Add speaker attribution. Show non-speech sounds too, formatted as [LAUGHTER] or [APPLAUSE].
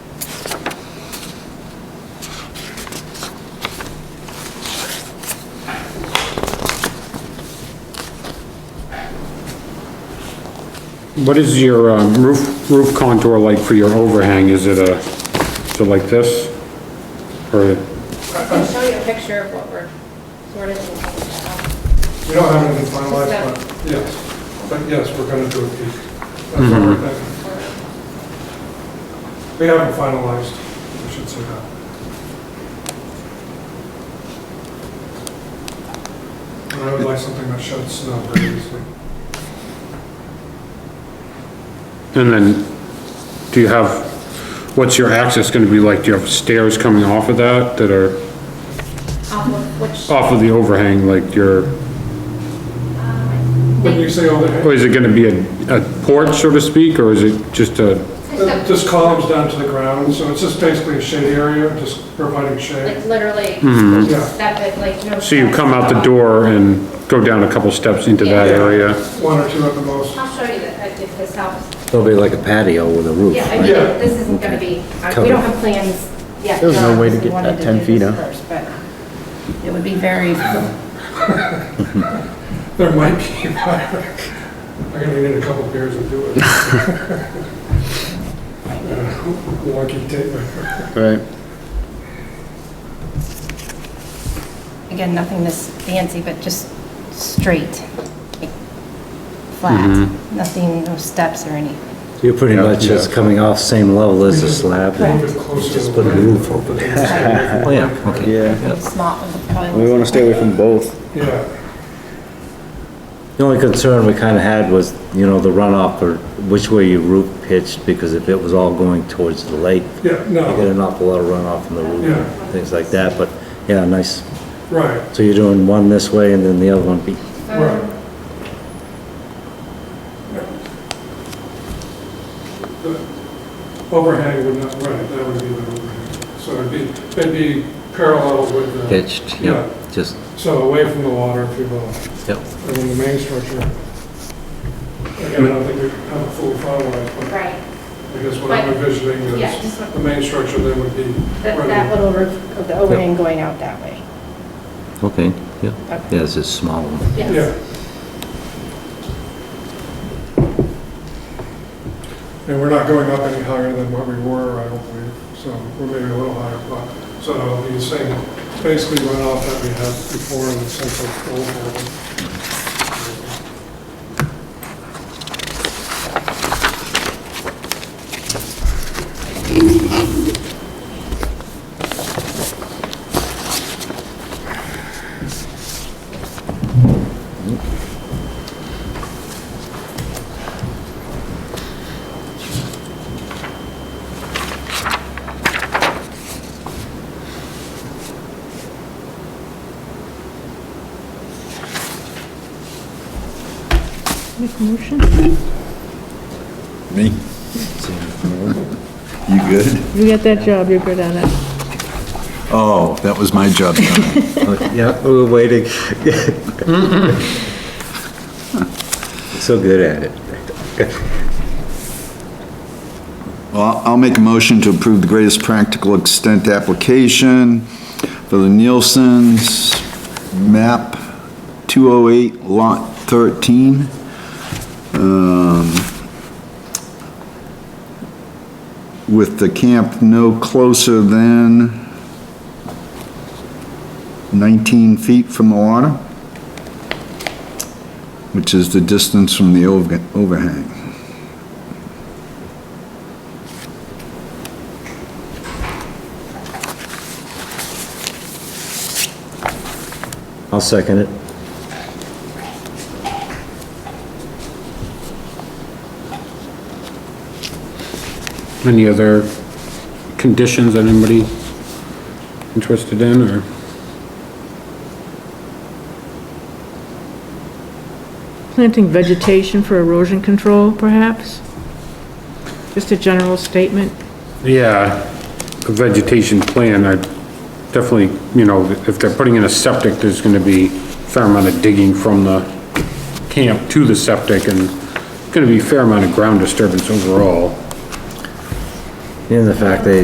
Speaker 1: What is your um, roof, roof contour like for your overhang? Is it a, is it like this? Or,
Speaker 2: I can show you a picture of what we're sort of looking at.
Speaker 3: We don't have anything finalized,
Speaker 2: Just
Speaker 3: but yes, but yes, we're gonna do a peak. That's what
Speaker 1: Mm-hmm.
Speaker 3: we're thinking. We haven't finalized, I should say that. And I would like something that sheds snow very easily.
Speaker 1: and then, do you have, what's your access gonna be like? Do you have stairs coming off of that, that are
Speaker 2: Off of which,
Speaker 3: Uh,
Speaker 2: um,
Speaker 1: off of the overhang, like your,
Speaker 2: I
Speaker 3: When you
Speaker 2: think,
Speaker 3: say overhang,
Speaker 1: or is it gonna be a, a porch, so to speak, or is it just a,
Speaker 3: th- uh, just columns down to the ground, so it's just basically a shade area, just providing shade.
Speaker 2: like literally,
Speaker 4: Mm-hmm.
Speaker 3: Yeah.
Speaker 2: step it, like no.
Speaker 1: so you
Speaker 2: steps.
Speaker 1: come out the door and go down a couple steps into that
Speaker 2: Yeah.
Speaker 1: area?
Speaker 3: One or two at the most.
Speaker 2: I'll show you that, if this helps.
Speaker 5: It'll be like a patio with a roof,
Speaker 2: Yeah, I
Speaker 5: right?
Speaker 2: mean,
Speaker 3: Yeah.
Speaker 2: this isn't gonna be, I- we
Speaker 5: Covered.
Speaker 2: don't have plans yet. Uh,
Speaker 4: There's no way to
Speaker 2: We
Speaker 4: get
Speaker 2: wanted
Speaker 4: that
Speaker 2: to
Speaker 4: 10
Speaker 2: do
Speaker 4: feet,
Speaker 2: this
Speaker 4: huh?
Speaker 2: first, but It would be very,
Speaker 3: There might be, [LAUGHS] I'm gonna need a couple beers and do it. Wonky tape measure.
Speaker 1: Right.
Speaker 2: again, nothing this fancy, but just straight, like, flat,
Speaker 4: Mm-hmm.
Speaker 2: nothing, no steps or anything.
Speaker 5: You're pretty
Speaker 1: Yeah,
Speaker 5: much just
Speaker 1: yeah.
Speaker 5: coming off same level as the slab
Speaker 3: A
Speaker 5: and
Speaker 3: little bit closer.
Speaker 5: just put a roof over it. Oh, yeah, okay.
Speaker 4: Yeah,
Speaker 2: Small, probably.
Speaker 4: we wanna stay away from both.
Speaker 3: [LAUGHS] Yeah,
Speaker 5: The only concern we kinda had was, you know, the runoff or which way your roof pitched, because if it was all going towards the lake,
Speaker 3: yeah,
Speaker 5: you get
Speaker 3: no,
Speaker 5: an awful lot of runoff from the roof
Speaker 3: Yeah.
Speaker 5: and things like that, but, yeah, nice.
Speaker 3: right,
Speaker 5: So you're doing one this way and then the other one be,
Speaker 3: right. The Overhang would not, right, that would be the overhang. So it'd be, it'd be parallel with the.
Speaker 5: pitched, yeah, just,
Speaker 3: So away from the water, if you will.
Speaker 5: yep.
Speaker 3: I mean, the main structure, again, I don't think we have it fully finalized,
Speaker 2: Right,
Speaker 3: but I guess what I'm envisioning
Speaker 2: yeah,
Speaker 3: is
Speaker 2: just
Speaker 3: the main structure then would be
Speaker 2: that, that
Speaker 3: running.
Speaker 2: little roof of the overhang going out that way.
Speaker 5: okay, yeah,
Speaker 2: Okay.
Speaker 5: yeah, it's just small one.
Speaker 3: Yeah. And we're not going up any higher than what we were, I don't believe, so we're maybe a little higher, but, so it'll be the same, basically runoff that we had before in the central old building.
Speaker 6: Me? You good?
Speaker 7: You get that job, you're good at it.
Speaker 6: Oh, that was my job.
Speaker 5: Yeah, we were waiting. So good at it.
Speaker 6: Well, I'll- I'll make a motion to approve the greatest practical extent application for the Nielsen's map 208 lot 13. um, With the camp no closer than 19 feet from the water, which is the distance from the overga- overhang.
Speaker 5: I'll second it.
Speaker 1: Any other conditions that anybody interested in, or?
Speaker 7: Planting vegetation for erosion control, perhaps? Just a general statement?
Speaker 1: Yeah, a vegetation plan, I definitely, you know, if they're putting in a septic, there's gonna be a fair amount of digging from the camp to the septic, and gonna be a fair amount of ground disturbance overall.
Speaker 5: And the fact they